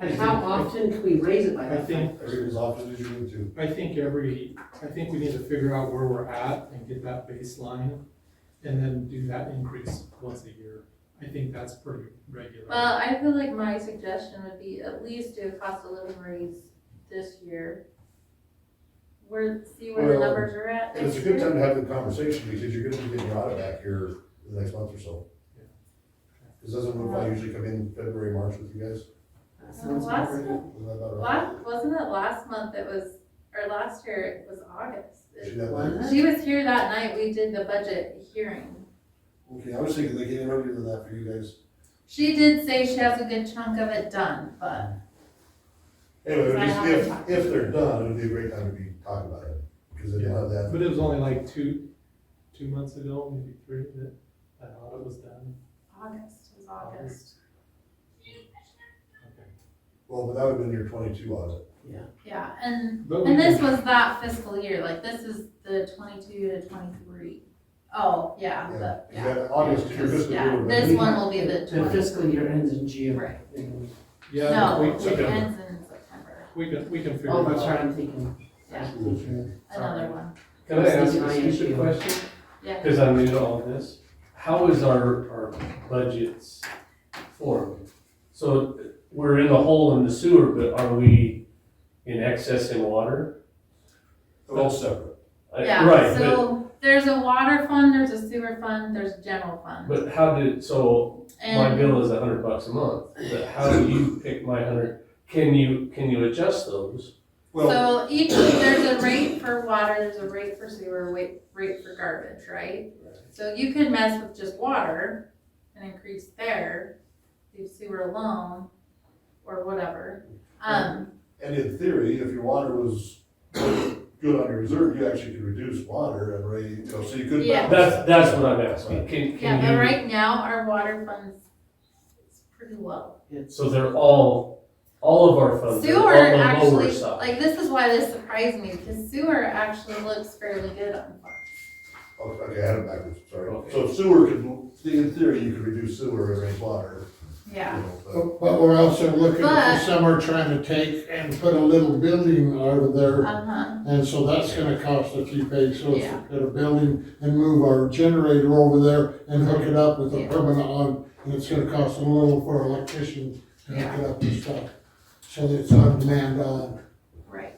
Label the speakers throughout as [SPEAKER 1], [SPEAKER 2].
[SPEAKER 1] And how often can we raise it by
[SPEAKER 2] I
[SPEAKER 1] that?
[SPEAKER 2] think,
[SPEAKER 3] As often as you need to.
[SPEAKER 2] I think every, I think we need to figure out where we're at and get that baseline, and then do that increase once a year. I think that's pretty regular.
[SPEAKER 4] Well, I feel like my suggestion would be at least do a cost of living raise this year. Where, see where the
[SPEAKER 3] Well,
[SPEAKER 4] numbers are at
[SPEAKER 3] It's a
[SPEAKER 4] this
[SPEAKER 3] good
[SPEAKER 4] year.
[SPEAKER 3] time to have the conversation because you're gonna be getting your audit back here in the next month or so.
[SPEAKER 2] Yeah.
[SPEAKER 3] Because doesn't one I usually come in February, March with you guys?
[SPEAKER 1] That sounds
[SPEAKER 4] Last
[SPEAKER 1] about right.
[SPEAKER 4] month-
[SPEAKER 3] Isn't that about right?
[SPEAKER 4] Last, wasn't it last month it was, or last year it was August?
[SPEAKER 3] She that night?
[SPEAKER 4] She was here that night, we did the budget hearing.
[SPEAKER 3] Okay, I was thinking they gave it earlier than that for you guys.
[SPEAKER 4] She did say she has a good chunk of it done, but
[SPEAKER 3] Anyway,
[SPEAKER 4] Because I
[SPEAKER 3] just
[SPEAKER 4] haven't talked
[SPEAKER 3] if,
[SPEAKER 4] to
[SPEAKER 3] if
[SPEAKER 4] them.
[SPEAKER 3] they're done, it would be a great time to be talking about it, because they don't have that.
[SPEAKER 2] But it was only like two, two months ago, maybe three, that that audit was done.
[SPEAKER 4] August was August.
[SPEAKER 2] Okay.
[SPEAKER 3] Well, but that would have been your twenty-two audit.
[SPEAKER 4] Yeah, and,
[SPEAKER 2] But we
[SPEAKER 4] and this
[SPEAKER 2] can-
[SPEAKER 4] was that fiscal year, like this is the twenty-two to twenty-three. Oh, yeah,
[SPEAKER 3] Yeah,
[SPEAKER 4] the,
[SPEAKER 3] because
[SPEAKER 4] yeah.
[SPEAKER 3] that August, your fiscal year
[SPEAKER 4] Yeah,
[SPEAKER 3] would have
[SPEAKER 4] this
[SPEAKER 3] been.
[SPEAKER 4] one will be the
[SPEAKER 1] The
[SPEAKER 4] twenty.
[SPEAKER 1] fiscal year ends in June.
[SPEAKER 4] Right.
[SPEAKER 2] Yeah,
[SPEAKER 4] No,
[SPEAKER 2] we,
[SPEAKER 4] it
[SPEAKER 2] we
[SPEAKER 4] ends
[SPEAKER 3] September.
[SPEAKER 2] can,
[SPEAKER 4] in September,
[SPEAKER 2] we can, we can figure
[SPEAKER 1] Oh,
[SPEAKER 2] it
[SPEAKER 1] that's right,
[SPEAKER 2] out.
[SPEAKER 1] I'm thinking.
[SPEAKER 4] yeah,
[SPEAKER 2] Sorry.
[SPEAKER 4] another one,
[SPEAKER 5] Can I ask
[SPEAKER 1] I
[SPEAKER 5] a
[SPEAKER 1] am
[SPEAKER 5] stupid
[SPEAKER 1] too.
[SPEAKER 5] question?
[SPEAKER 4] yeah.
[SPEAKER 5] Because I'm new to all this. How is our, our budgets formed? So we're in the hole in the sewer, but are we in excess in water?
[SPEAKER 3] They're all separate.
[SPEAKER 2] Uh,
[SPEAKER 5] I-
[SPEAKER 4] Yeah,
[SPEAKER 5] Right, but,
[SPEAKER 4] so there's a water fund, there's a sewer fund, there's general fund.
[SPEAKER 5] but how did, so my
[SPEAKER 4] And
[SPEAKER 5] bill is a hundred bucks a month, but how do you pick my hundred? Can you, can you adjust those?
[SPEAKER 3] Well,
[SPEAKER 4] so each, there's a rate for water, there's a rate for sewer, rate, rate for garbage, right? So you could mess with just water and increase there, leave sewer alone, or whatever. Um,
[SPEAKER 3] and in theory, if your water was good on your reserve, you actually could reduce water and rate, you know, so you could.
[SPEAKER 4] Yeah.
[SPEAKER 3] balance
[SPEAKER 5] That's, that's what I'm
[SPEAKER 3] Right.
[SPEAKER 5] asking. Can,
[SPEAKER 4] yeah, but
[SPEAKER 5] can
[SPEAKER 4] right now, our water fund's is pretty low.
[SPEAKER 5] you, so they're all, all of our funds are
[SPEAKER 4] Sewer
[SPEAKER 5] on the lower
[SPEAKER 4] actually,
[SPEAKER 5] side.
[SPEAKER 4] like, this is why this surprised me, because sewer actually looks fairly good on Fox.
[SPEAKER 3] Oh, Okay, I had it backwards, sorry.
[SPEAKER 5] Okay.
[SPEAKER 3] So sewer could, in theory, you could reduce sewer and raise water, you
[SPEAKER 4] Yeah,
[SPEAKER 3] know,
[SPEAKER 6] Oh,
[SPEAKER 3] but
[SPEAKER 7] But but we're also looking
[SPEAKER 4] But-
[SPEAKER 7] for somewhere trying to take and put a little building over there.
[SPEAKER 4] uh-huh,
[SPEAKER 7] And so that's gonna cost a few bucks, so if
[SPEAKER 4] Yeah.
[SPEAKER 7] we put a building and move our generator over there and hook it up with a
[SPEAKER 4] Yeah.
[SPEAKER 7] permanent on, and it's gonna cost a little for an electrician to hook it up and stuff. So that it's on demand on.
[SPEAKER 4] right.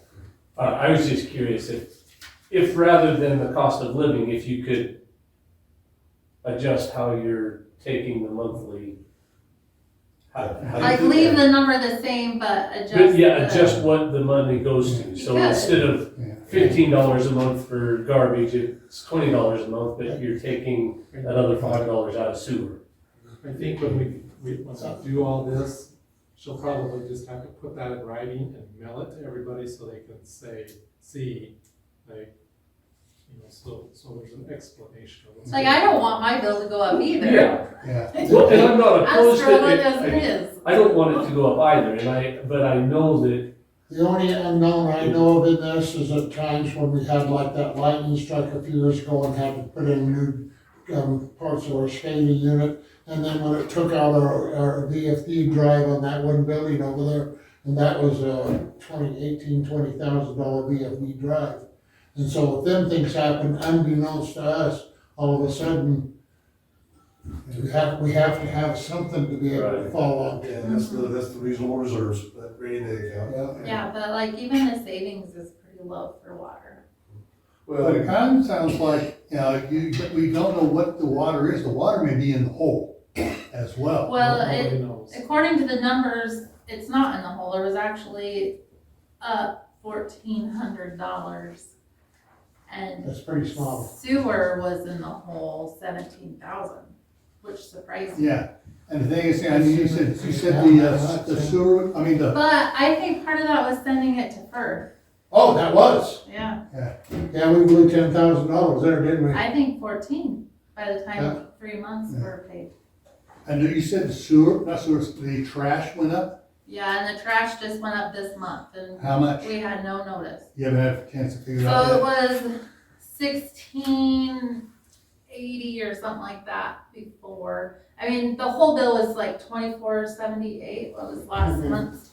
[SPEAKER 5] Uh, I was just curious if, if rather than the cost of living, if you could adjust how you're taking the monthly. how- how you-
[SPEAKER 3] I
[SPEAKER 4] Like,
[SPEAKER 3] think
[SPEAKER 4] leave
[SPEAKER 3] that-
[SPEAKER 4] the number the same, but adjust
[SPEAKER 5] But yeah,
[SPEAKER 4] the-
[SPEAKER 5] adjust what the money goes to. So
[SPEAKER 4] You could.
[SPEAKER 5] instead of fifteen dollars a month for garbage, it's twenty dollars a month, but you're taking another five dollars out of sewer.
[SPEAKER 2] I think when we, we, once we do all this, she'll probably just have to put that in writing and mail it to everybody so they can say, see, like, you know, so, so there's an explanation of what's.
[SPEAKER 4] Like, I don't want my bill to go up either.
[SPEAKER 7] Yeah.
[SPEAKER 5] Well, and I'm not
[SPEAKER 4] I'm
[SPEAKER 5] opposed to
[SPEAKER 4] struggling
[SPEAKER 5] it.
[SPEAKER 4] as it
[SPEAKER 5] I-
[SPEAKER 4] is.
[SPEAKER 5] I don't want it to go up either, and I, but I know that,
[SPEAKER 7] The only unknown I know of in this is at times when we had like that lightning strike a few years ago and had to put in new, um, parts of our SCADA unit. And then when it took out our, our VFD drive on that one building over there, and that was a twenty, eighteen, twenty thousand dollar VFD drive. And so if them things happen unbeknownst to us, all of a sudden, we have, we have to have something to be able to
[SPEAKER 5] Right.
[SPEAKER 7] fall on.
[SPEAKER 3] Yeah, that's the, that's the reasonable reserves, that rainy day account.
[SPEAKER 7] Yeah.
[SPEAKER 4] Yeah, but like, even the savings is pretty low for water.
[SPEAKER 6] But
[SPEAKER 3] Well,
[SPEAKER 6] it kind of sounds like, you know, you, we don't know what the water is, the water may be in the hole as well.
[SPEAKER 4] Well, it,
[SPEAKER 2] Nobody knows.
[SPEAKER 4] according to the numbers, it's not in the hole, it was actually up fourteen hundred dollars. And
[SPEAKER 7] That's pretty small.
[SPEAKER 4] Sewer was in the hole seventeen thousand, which surprised me.
[SPEAKER 6] Yeah, and the thing is, I mean, you said, you said the, uh, the sewer, I mean, the,
[SPEAKER 4] But I think part of that was sending it to FERC,
[SPEAKER 7] Oh, that was.
[SPEAKER 4] yeah,
[SPEAKER 7] Yeah, we blew ten thousand dollars there, didn't we?
[SPEAKER 4] I think fourteen by the time
[SPEAKER 7] Yeah.
[SPEAKER 4] three months
[SPEAKER 6] Yeah.
[SPEAKER 4] were paid.
[SPEAKER 6] and you said the sewer, not sewer, the trash went up,
[SPEAKER 4] Yeah, and the trash just went up this month and
[SPEAKER 6] how much?
[SPEAKER 4] we had no notice.
[SPEAKER 6] You haven't had a chance to figure it
[SPEAKER 4] So it
[SPEAKER 6] out
[SPEAKER 4] was sixteen eighty or something like that before. I mean, the whole bill was like twenty-four seventy-eight, what was last
[SPEAKER 1] Mhm.
[SPEAKER 4] month's